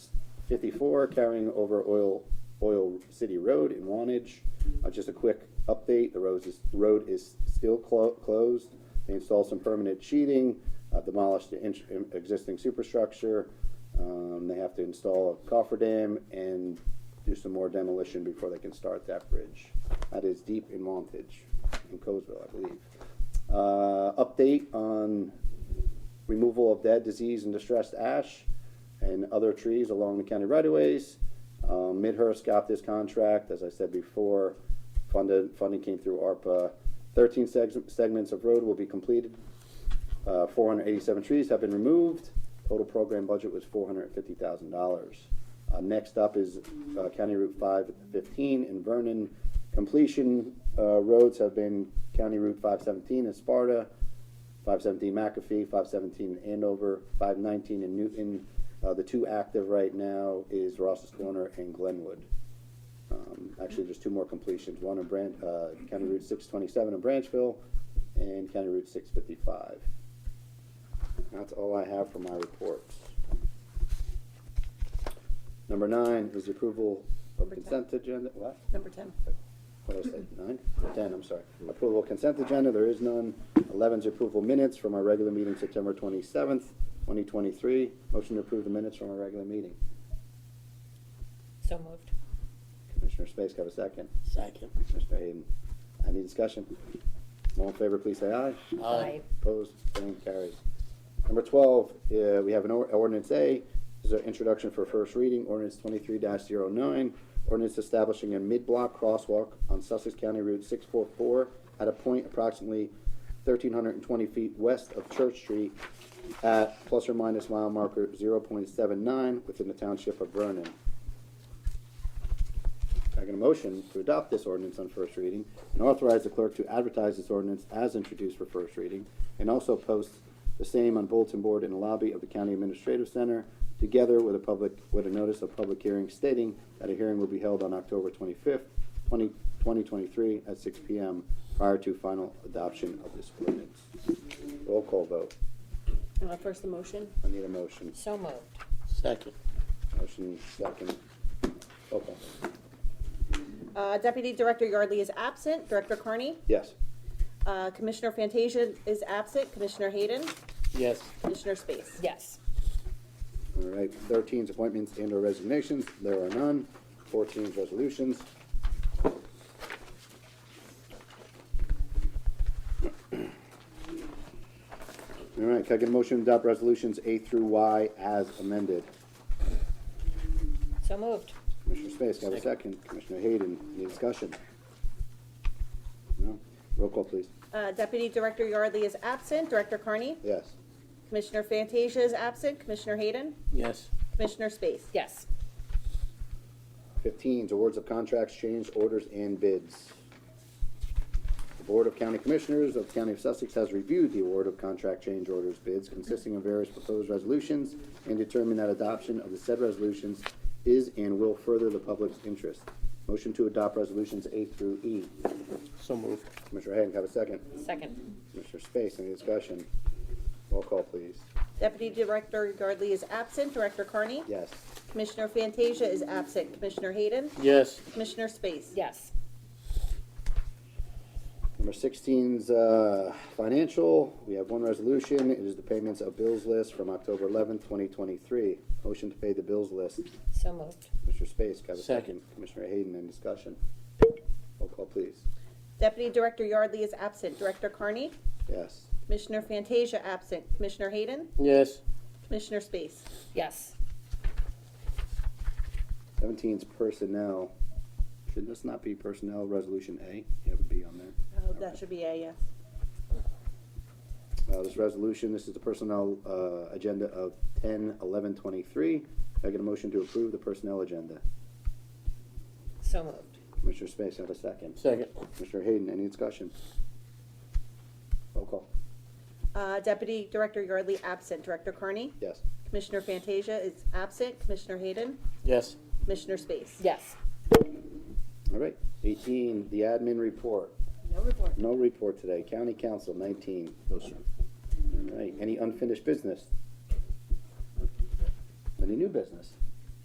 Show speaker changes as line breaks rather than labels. fifty-four, carrying over Oil, Oil City Road in Wantage. Uh, just a quick update, the road is, road is still clo- closed. They installed some permanent sheeting, uh, demolished the int- existing superstructure. Um, they have to install a cofferdam and do some more demolition before they can start that bridge. That is deep in Wantage, in Colesville, I believe. Uh, update on removal of dead, diseased, and distressed ash and other trees along the county right-of-ways. Um, Midhurst got this contract, as I said before, funded, funding came through ARPA. Thirteen seg- segments of road will be completed. Uh, four hundred eighty-seven trees have been removed. Total program budget was four hundred fifty thousand dollars. next up is, uh, County Route five fifteen in Vernon. Completion, uh, roads have been County Route five seventeen in Sparta, five seventeen McAfee, five seventeen in Andover, five nineteen in Newton. Uh, the two active right now is Ross's Corner and Glenwood. Um, actually, there's two more completions, one in Bran, uh, County Route six twenty-seven in Branchville and County Route six fifty-five. That's all I have for my reports. Number nine is the approval of
Number ten.
consent agenda, what?
Number ten.
What did I say, nine? Ten, I'm sorry. Approval of consent agenda, there is none. Eleven's approval minutes from our regular meeting September twenty-seventh, twenty twenty-three. Motion to approve the minutes from our regular meeting.
So moved.
Commissioner Space, have a second.
Second.
Mr. Hayden, any discussion? All in favor, please say aye.
Aye.
Opposed, Same carries. Number twelve, uh, we have an or- ordinance A, this is an introduction for first reading, ordinance twenty-three 9 ordinance establishing a mid-block crosswalk on Sussex County Route six four four at a point approximately thirteen hundred and twenty feet west of Church Street at plus or minus mile marker zero point seven nine within the township of Vernon. I get a motion to adopt this ordinance on first reading and authorize the clerk to advertise this ordinance as introduced for first reading and also post the same on bulletin board in the lobby of the county administrative center, together with a public, with a notice of public hearing stating that a hearing will be held on October twenty-fifth, twenty, twenty twenty-three at six P M prior to final adoption of this ordinance. Roll call vote.
Uh, first the motion.
I need a motion.
So moved.
Second.
Motion second. Roll call.
Uh, Deputy Director Yardley is absent. Director Carney?
Yes.
Uh, Commissioner Fantasia is absent. Commissioner Hayden?
Yes.
Commissioner Space?
Yes.
All right, thirteen's appointments and or resignations, there are none. Fourteen's resolutions. All right, can I get a motion to adopt resolutions A through Y as amended?
So moved.
Commissioner Space, can I have a second? Commissioner Hayden, any discussion? No? Roll call, please.
Uh, Deputy Director Yardley is absent. Director Carney?
Yes.
Commissioner Fantasia is absent. Commissioner Hayden?
Yes.
Commissioner Space?
Yes.
Fifteens, awards of contracts, change orders, and bids. The Board of County Commissioners of the County of Sussex has reviewed the award of contract change orders bids consisting of various proposed resolutions and determined that adoption of the said resolutions is and will further the public's interest. Motion to adopt resolutions A through E.
So moved.
Commissioner Hayden, have a second.
Second.
Commissioner Space, any discussion? Roll call, please.
Deputy Director Yardley is absent. Director Carney?
Yes.
Commissioner Fantasia is absent. Commissioner Hayden?
Yes.
Commissioner Space?
Yes.
Number 16's uh, financial. We have one resolution. It is the payments of bills list from October 11th, 2023. Motion to pay the bills list.
So moved.
Mr. Space, can I have a second?
Second.
Commissioner Hayden, any discussion? Roll call, please.
Deputy Director Yardley is absent. Director Carney?
Yes.
Commissioner Fantasia absent. Commissioner Hayden?
Yes.
Commissioner Space?
Yes.
17's personnel. Should this not be personnel resolution A? You have a B on there.
Oh, that should be a yes.
Uh, This resolution, this is the personnel uh, agenda of 10, 11, 23. Can I get a motion to approve the personnel agenda?
So moved.
Commissioner Space, have a second.
Second.
Mr. Hayden, any discussion? Roll call.
Uh, Deputy Director Yardley absent. Director Carney?
Yes.
Commissioner Fantasia is absent. Commissioner Hayden?
Yes.
Commissioner Space?
Yes.
All right. Eighteen, the admin report.
No report.
No report today. County Council, nineteen. No, sir. All right. Any unfinished business? Any new business?